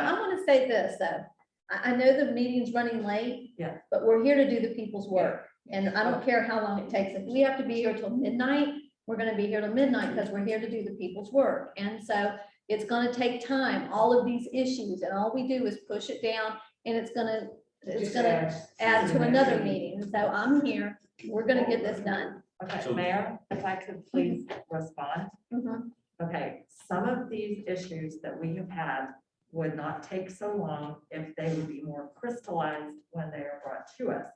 to say this, though. I, I know the meeting's running late. Yeah. But we're here to do the people's work, and I don't care how long it takes. If we have to be here till midnight, we're gonna be here till midnight because we're here to do the people's work. And so it's gonna take time, all of these issues, and all we do is push it down, and it's gonna, it's Just gonna add to the another next meeting. So I'm here, we're gonna get this done. Okay, So- Mayor, if I could please respond. Mm-hmm. Mhm. Okay, some of these issues that we have had would not take so long if they would be more crystallized when they are brought to us.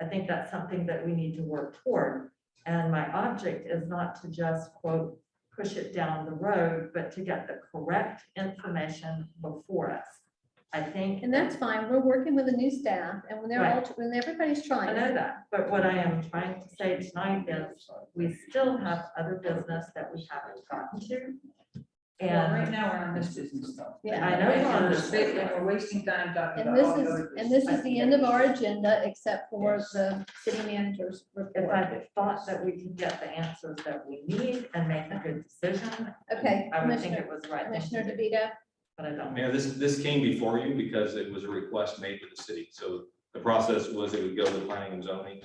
I think that's something that we need to work toward. And my object is not to just quote, push it down the road, but to get the correct information before us. I think. And that's fine. We're working with the new staff, and when they're all, when everybody's I trying. know that, but what I am trying to say tonight is, we still have other business that we haven't gotten to. Well, right And, now, we're on this business stuff. Yeah. I know we're on And this. we're- And we're wasting time talking And about this all the is, other and business. this is the end of our agenda, except for Yes. the city manager's if report. I thought that we could get the answers that we need and make a good decision. Okay, I would think Commissioner, it was the right. thing to Commissioner do, DeVito, But I don't. Mayor, this, this came before you because it was a request made to the city. So the process was it would go to planning and zoning.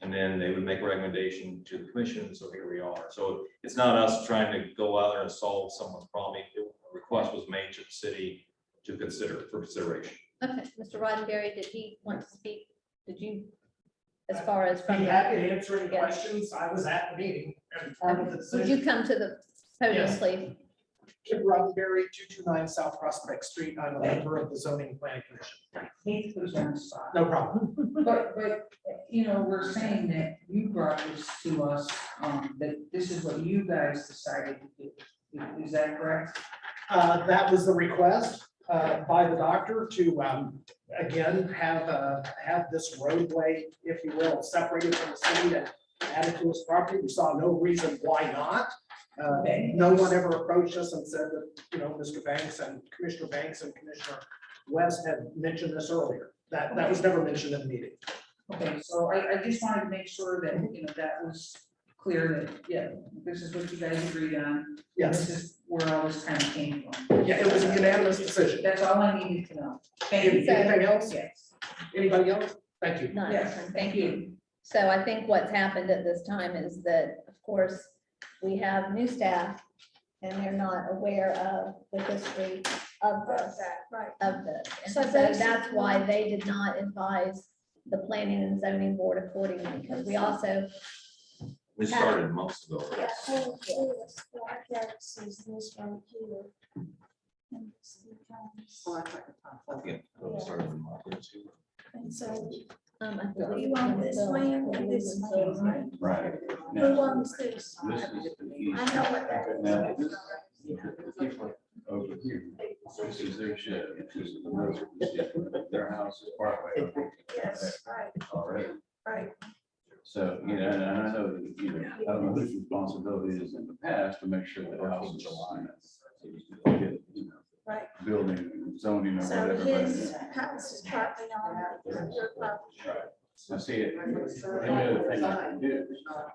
And then they would make a recommendation to the commission. So here we are. So it's not us trying to go out there and solve someone's problem. A Request was made to the city to consider for consideration. okay, Mr. Roddenberry, did he want to speak? Did you, as far as Be from, the- happy to answer any questions. I was at the meeting and part of the Um, would decision. you come to the podium, Yes. please? Kip Roddenberry, two two nine South Prospect Street. I'm a member of the zoning planning commission. Heath was on the side. No problem. But, but, you know, we're saying that you brought this to us, um, that this is what you guys decided to do. Is- Is that correct? Uh, that was the request, uh, by the doctor to, um, again, have, uh, have this roadway, if you will, separated from the city and added to his property. We saw no reason why not. Uh, no one ever approached us and said that, you know, Mr. Banks and Commissioner Banks and Commissioner West had mentioned this earlier. That, that was never mentioned in the meeting. Okay, so I, I just wanted to make sure that, you know, that was clear that, yeah, this is what you guys agreed on. This Yes, is where all this kind of came from. yeah, it was a unanimous decision. That's all I needed to know. Thank you. Anything else? Yes, Anybody else? Thank you. None. yes, thank you. So I think what's happened at this time is that, of course, we have new staff and they're not aware of the history of Of this, that, right. of this. And So so that's basically- why they did not advise the planning and zoning board accordingly, because we also, We started months ago. Yeah, and this black X is this right here. And this becomes- We started in March. And so um, I you believe. want this land and this land, right? Right. Who Now, wants this? I this is know confusing. what that is. Now, this, look at the people over here, this is their shed, this is the road, this is their house is partway. over Yes, right, there Already, right. so, you know, and I know, that, you know, I don't know whose responsibility it is in the past to make sure the house is aligned. you know, Right. Building and zoning or So whatever. but- his house is partly on that, your property. I see it, every other thing I can do,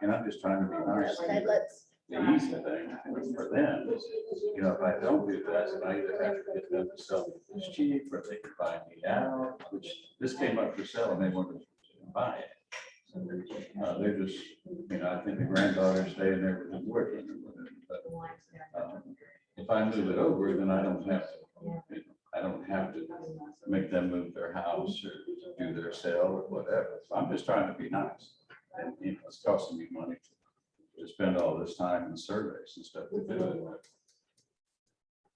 and I'm just trying to be nice. Okay, let's, the easy thing for them is, you know, if I don't do that, then I either have to get them to sell it this cheap or they can buy me out, which this came up for sale and they wanted to buy it. Uh, they're just, you know, I think the granddaughter's staying there with them working or whatever, but um, if I move it over, then I don't have to, you know, I don't have to make them move their house or do their sale or whatever. So I'm just trying to be nice. And you know, it's costing me money to spend all this time in surveys and stuff to do it.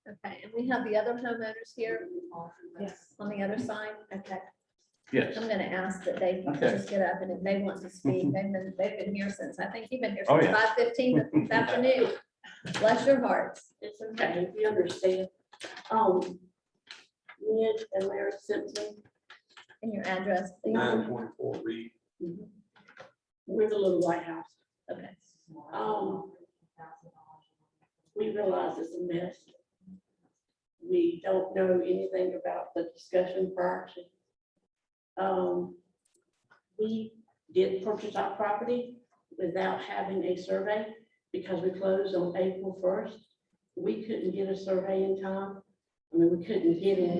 okay, and we have the other homeowners here Yes. on the other side, okay. Yes. I'm gonna ask that they Okay. just get up and if they want to speak, they've been, they've been here since, I think you've been here Oh, since yeah. five fifteen this afternoon. Bless your hearts. It's okay, if you understand. Um, Ned and Larry Simpson, And your address, please. point four read. we're the little White House. Okay. Um, we realize it's a mess. We don't know anything about the discussion prior to. Um, we did purchase our property without having a survey because we closed on April first. We couldn't get a survey in time. I mean, we couldn't get it